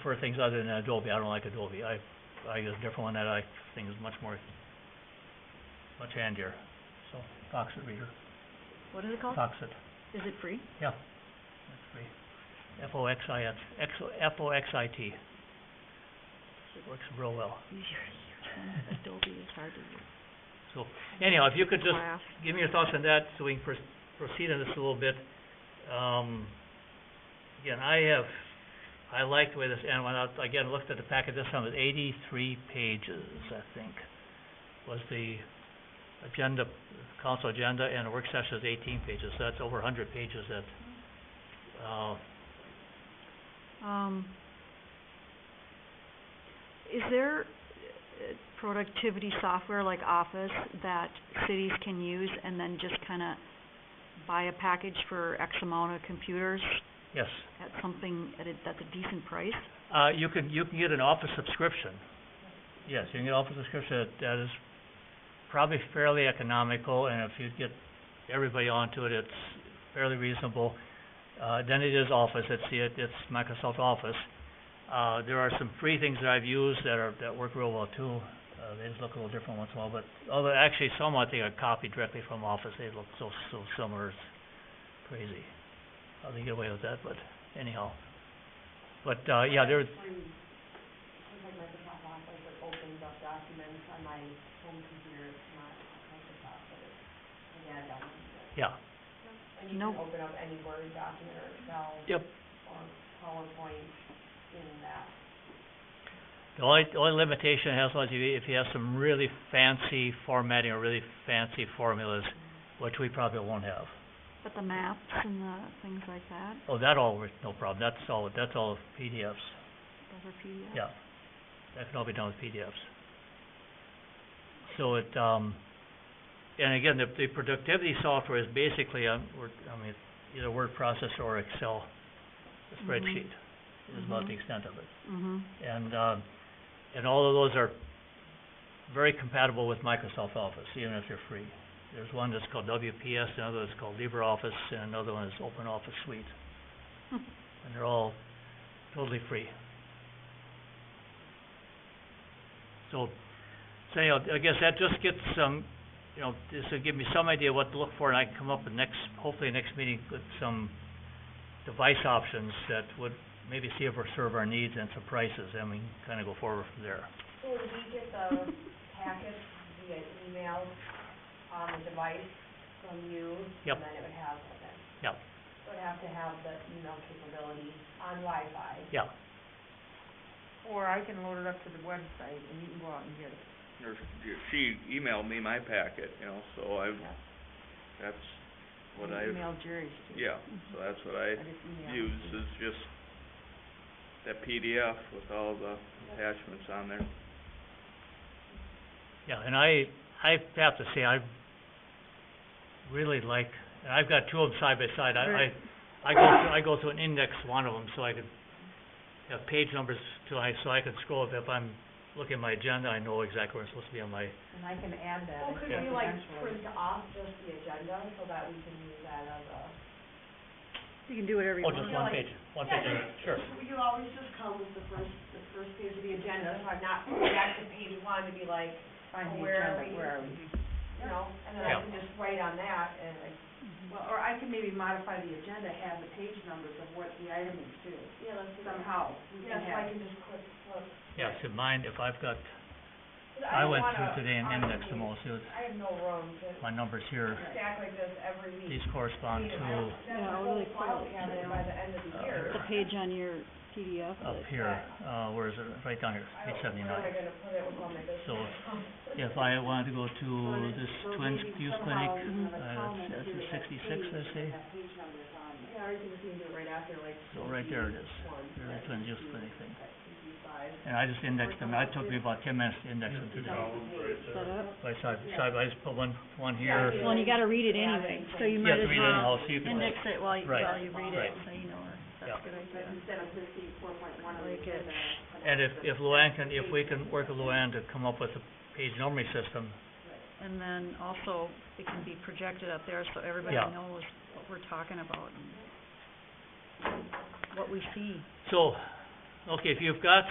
prefer things other than Adobe. I don't like Adobe. I, I use a different one that I think is much more, much handier. So, Foxit Reader, What is it called? Foxit, Is it free? yeah. That's free. F O X I X, X, F O X I T. It works real well. Your, your Adobe is hard to use. So, anyhow, if you could just Wow. give me your thoughts on that, so we can pros- proceed on this a little bit. Um, again, I have, I like the way this, and when I, again, looked at the packet this time, it was eighty-three pages, I think, was the agenda, council agenda, and the work session is eighteen pages, so that's over a hundred pages that, uh, Um, is there uh, productivity software like Office that cities can use and then just kinda buy a package for X amount of computers yes. at something, at a, that's a decent price? Uh, you can, you can get an office subscription. Yes, you can get office subscription, that- that is probably fairly economical, and if you get everybody onto it, it's fairly reasonable. Uh, then it is Office, it's the, it's Microsoft Office. Uh, there are some free things that I've used that are, that work real well too, uh, they just look a little different once in a while, but, although actually some I think are copied directly from Office, they look so, so similar, it's crazy. How they get away with that, but anyhow. But, uh, yeah, there's, Seems like Microsoft Office, it opens up documents on my home computer, it's not Microsoft, but it's, yeah, documents. yeah, And you No. can open up any Word document or Excel yep. or PowerPoint in that. The only, the only limitation it has was you- if you have some really fancy formatting or really fancy formulas, which we probably won't have. But the maps and the things like that, Oh, that all works, no problem, that's all, that's all PDFs, those are PDF? yeah. That can all be done with PDFs. So it, um, and again, the, the productivity software is basically, um, we're, I mean, either word processor or Excel Mhm. spreadsheet is about the Mhm. extent of it. Mm-hmm. And, uh, and all of those are very compatible with Microsoft Office, even if they're free. There's one that's called WPS, another that's called LibreOffice, and another one is Open Office Suite. Hmm. And they're all totally free. So, so anyhow, I guess that just gets some, you know, this will give me some idea what to look for, and I can come up with next, hopefully next meeting with some device options that would maybe see if we serve our needs and some prices, and we can kinda go forward from there. So would we get the packets via email on the device from you? Yep. And then it would have, okay. Yep. It would have to have the email capability on Wi-Fi. Yeah, Or I can load it up to the website and you can go out and get it. or she emailed me my packet, you know, so I, that's what I, I emailed Jerry's too. yeah, so that's what I I just emailed. use is just that PDF with all the attachments on there. yeah, and I, I have to say, I really like, and I've got two of them side by side, I, Right. I, I go, through- I go through an index one of them, so I could have page numbers to, I, so I could scroll, if if I'm looking at my agenda, I know exactly where it's supposed to be on my, And I can add that. Well, I could think we like print eventually. off just the agenda so that we can use that as a? You can do whatever you oh, want. just one page, one page, sure. You always just come with the first, the first page of the agenda, so I'm not back to page one to be like, Find the where are agenda, we? where are we? you know, and then Yeah. I can just write on that and like, Well, or I can maybe modify the agenda, have the page numbers of what the item is to, yeah, let's do that. somehow. We Yeah, so can I have, can just click, flip. Yeah, so mine, if I've got, 'Cause I don't went wanna through today and indexed argue. them all, so it's, I have no room to my numbers here, stack like this every week. these correspond You know, to That's Yeah, the I'll whole really file quickly we have there by the end of the uh, year. The page on your PDF up that- here, uh, where is it, right down here, page I don't- seventy-nine. Where am I gonna put it with all my business? So If I wanted to go to this Twins View Clinic, uh, that's a sixty-six, I see, Yeah, or you can just do it right after, like. so right there it is, one, there the right, Twins View Clinic thing. right, CC5. And I just indexed them, it took me about ten minutes to index them today, set up. by side, side, I just put one, one Yeah, here. Well, and you gotta read it anyway, so You you might have to as read it well anyhow, so you can, index it while, you- Right, while you read it, right. so you know where. Yeah. That's a good But idea. instead of fifteen, four point one, Like it. and if, if Luann can, if we can work with Luann to come up with a page numbering system, And then also, it can be projected up there so everybody Yeah. knows what we're talking about and what we see. So, Okay, if you've got